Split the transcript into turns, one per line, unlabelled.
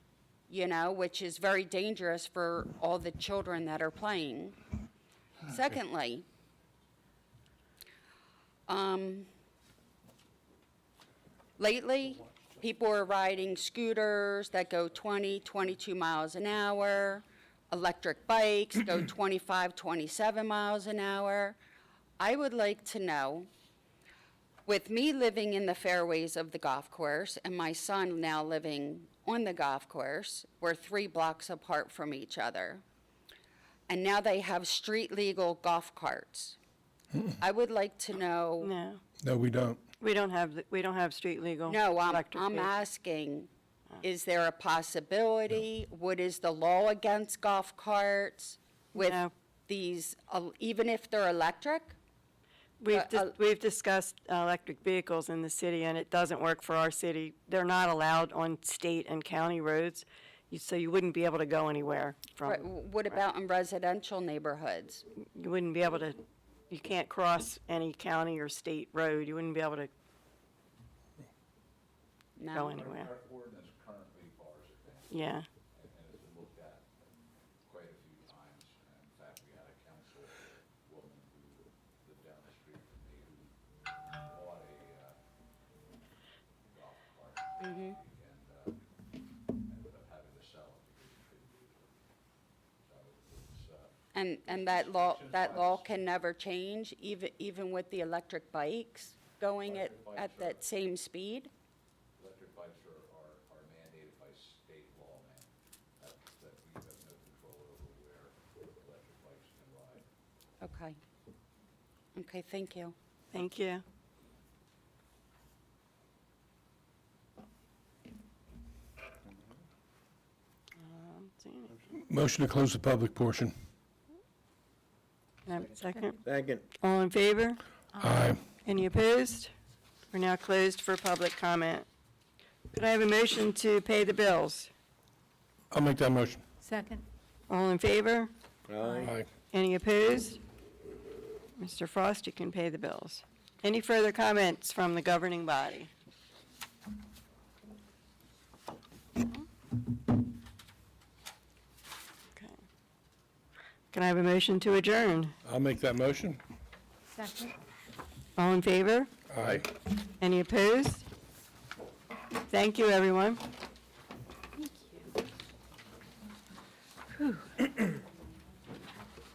you know, which is very dangerous for all the children that are playing. Secondly, um, lately, people are riding scooters that go 20, 22 miles an hour, electric bikes go 25, 27 miles an hour. I would like to know, with me living in the fairways of the golf course and my son now living on the golf course, we're three blocks apart from each other. And now they have street legal golf carts. I would like to know,
No,
No, we don't.
we don't have, th- we don't have street legal.
no, I'm,
electric
I'm
vehicles.
asking, is there a possibility? What is the law against golf carts with
No.
these, uh, even if they're electric?
We've,
but
dis-
I'll-
we've discussed uh, electric vehicles in the city, and it doesn't work for our city. They're not allowed on state and county roads, you- so you wouldn't be able to go anywhere
Right,
from,
w- What about in residential neighborhoods?
you wouldn't be able to, you can't cross any county or state road, you wouldn't be able to
No.
go anywhere.
Our ordinance currently bars it down,
Yeah,
and it's been looked at quite a few times. And In fact, we had a council woman who lived down the street from me who bought a uh, golf cart. And uh, ended up having to sell it because she couldn't use it. So it's, uh,
And, and that law, that law can never change, even, even with the electric bikes going at, at that same speed?
electric bikes are, are are mandated by state law now. That, that we have no control over where electric bikes can ride.
Okay. Okay, thank you.
thank you. Um, see any-
Motion to close the public portion.
can I have a Second,
Second.
all in favor?
Aye.
Any opposed? We're now closed for public comment. Could I have a motion to pay the bills?
I'll make that motion.
Second.
All in favor?
Aye.
Aye.
Any opposed? Mr. Frost, you can pay the bills. Any further comments from the governing body? Okay. Can I have a motion to adjourn?
I'll make that motion.
Second.
All in favor?
Aye.
Any opposed? Thank you, everyone.